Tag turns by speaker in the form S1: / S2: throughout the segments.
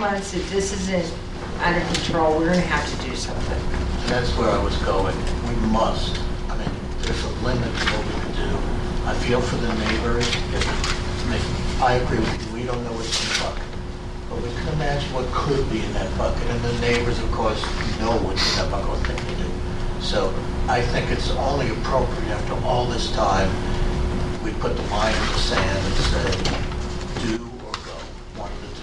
S1: months, if this isn't under control, we're gonna have to do something.
S2: That's where I was going. We must. I mean, there's a limit to what we can do. I feel for the neighbors. If- I mean, I agree with you, we don't know what's in the bucket. But we can imagine what could be in that bucket, and the neighbors, of course, know what's in that bucket, what they can do. So I think it's only appropriate after all this time, we put the line in the sand and say, do or go, one of the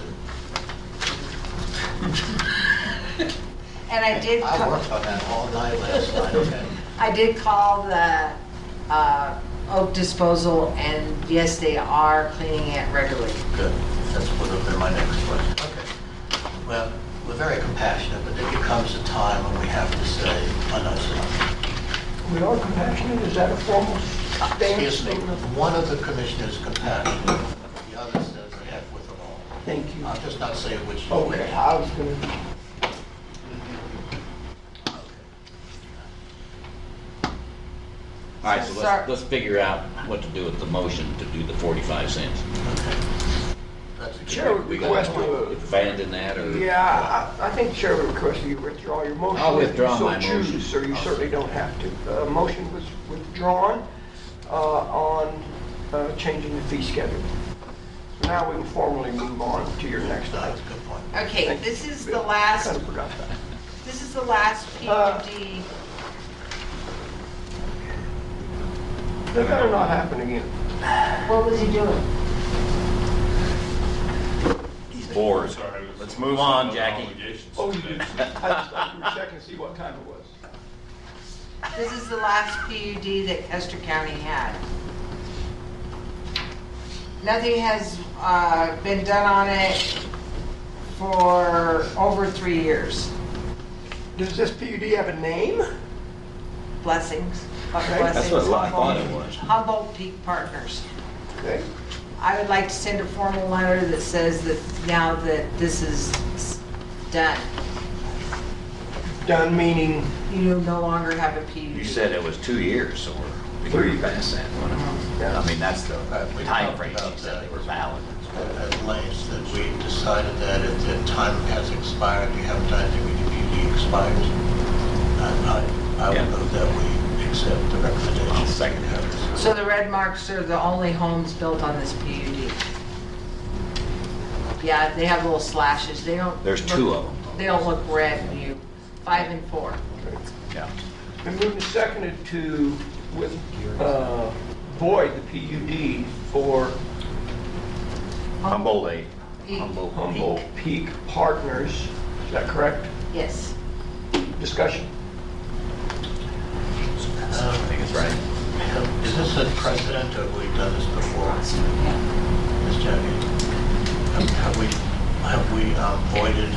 S2: two.
S1: And I did,
S2: I
S1: ca-
S2: worked on that all night last night, okay?
S1: I did call the uh, Oak Disposal, and yes, they are cleaning it regularly.
S2: Good, that's would have been my next question. Okay. Well, we're very compassionate, but there becomes a time when we have to say, enough's enough.
S3: We are compassionate, is that a formal
S2: Excuse me,
S3: statement?
S2: one of the commissioners compassionate, the other says, the heck with them all.
S3: Thank you.
S2: I'm just not saying which is which.
S3: Okay, I was gonna,
S4: All right, so
S1: Sir.
S4: let's, let's figure out what to do with the motion to do the 45 cents.
S2: Okay. That's a good-
S3: Chair would
S4: We gotta
S3: request to,
S4: Abandon that or?
S3: yeah, I, I think Chair would request that you withdraw your motion.
S4: I'll
S3: if you
S4: withdraw
S3: so
S4: my
S3: choose,
S4: motion.
S3: So you certainly don't have to. Uh, motion was withdrawn, uh, on, uh, changing the fee schedule. So now we can formally move on to your next
S2: That's
S3: item.
S2: a good point.
S1: Okay,
S3: Thank you.
S1: this is the last,
S3: Kinda forgot that.
S1: this is the last
S3: Uh,
S1: PUD.
S3: That better not happen again.
S1: What was he doing?
S4: He's bored. Let's move on, Jackie.
S3: Oh, you did, I just thought you were checking to see what time it was.
S1: This is the last PUD that Custer County had. Nothing has uh, been done on it for over three years.
S3: Does this PUD have a name?
S1: Blessings.
S3: Okay.
S4: That's what a lot of thought it
S1: Humboldt-
S4: was.
S1: Humboldt Peak Partners.
S3: Okay.
S1: I would like to send a formal letter that says that now that this is s- done,
S3: Done meaning
S1: you no longer have a PUD.
S5: You said it was two years, so we're
S3: Three.
S5: pretty past that. one.
S3: Yeah.
S5: I mean, that's the
S2: Right, we talked
S5: timeframe
S2: about
S5: you said they were valid.
S2: At length, that we decided that if the time has expired, we haven't done anything, we need to be expired. And I, I
S5: Yeah.
S2: would move that we accept the recommendation.
S5: I'll second that.
S1: So the red marks are the only homes built on this PUD. Yeah, they have little slashes, they don't.
S5: There's
S1: look-
S5: two of them.
S1: They don't look red when you, five and four.
S5: Yeah.
S3: Been moved and seconded to with, uh, void the PUD for
S5: Humboldt eight.
S1: Peak.
S3: Humboldt Peak Partners. Is that correct?
S1: Yes.
S3: Discussion?
S5: I think it's right.
S2: Is this a precedent, or have we done this before, Ms. Jackie? Have- Have we, have we um, voided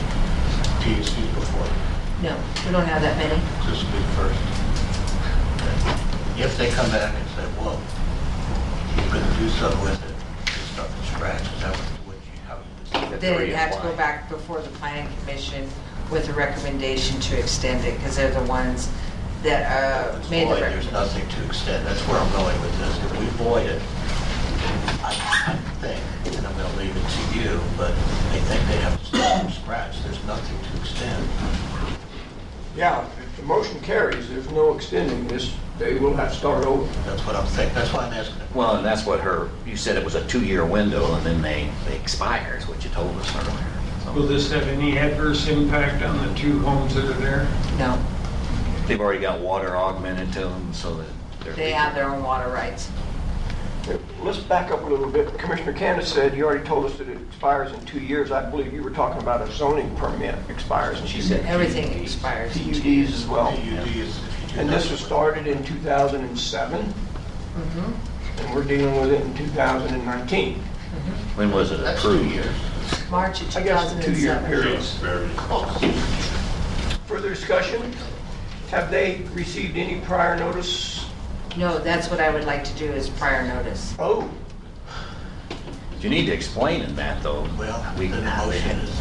S2: PUCs before?
S1: No, we don't have that many.
S2: This will be the first. Okay. If they come back and say, well, you're going to do something with it, you start from scratch, is that what you, how you would
S1: Then it had to go back before the planning commission with a recommendation to extend it, because they're the ones that uh,
S2: It's
S1: made the
S2: void, there's
S1: recommendation.
S2: nothing to extend, that's where I'm going with this, if we void it, I I think, and I'm gonna leave it to you, but I think they have to start from scratch, there's nothing to extend.
S3: Yeah, if the motion carries, there's no extending this, they will have to start over.
S2: That's what I'm thinking, that's why I'm asking. it.
S5: Well, and that's what her, you said it was a two-year window and then they, they expire is what you told us earlier.
S6: Will this have any adverse impact on the two homes that are there?
S1: No,
S5: So They've already got water augmented to them so that they're.
S1: they have their own water rights.
S3: Let's back up a little bit. Commissioner Candace said, you already told us that it expires in two years. I believe you were talking about a zoning permit expires. in
S5: She
S3: two
S5: said.
S1: Everything expires. in two
S3: PUDs as well.
S2: PUD is if you do
S3: Oh, And
S2: nothing
S3: this was
S2: with it.
S3: started in 2007,
S1: Mhm.
S3: and we're dealing with it in 2019.
S5: When was it
S2: That's two
S5: approved?
S2: years.
S1: March of
S3: I guess the two-year
S1: 2007.
S3: period.
S4: Oh.
S3: Further discussion? Have they received any prior notice?
S1: No, that's what I would like to do is prior notice.
S3: Oh,
S5: You need to explain in that though.
S2: Well,
S5: We-
S2: the motion is.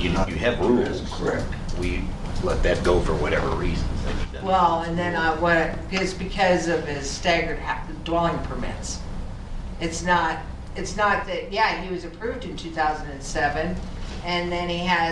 S5: You, you have rules.
S3: correct.
S5: we let that go for whatever reasons. that he doesn't-
S1: Well, and then I, what, it's because of his staggered ha- dwelling permits. It's not, it's not that, yeah, he was approved in 2007, and then he has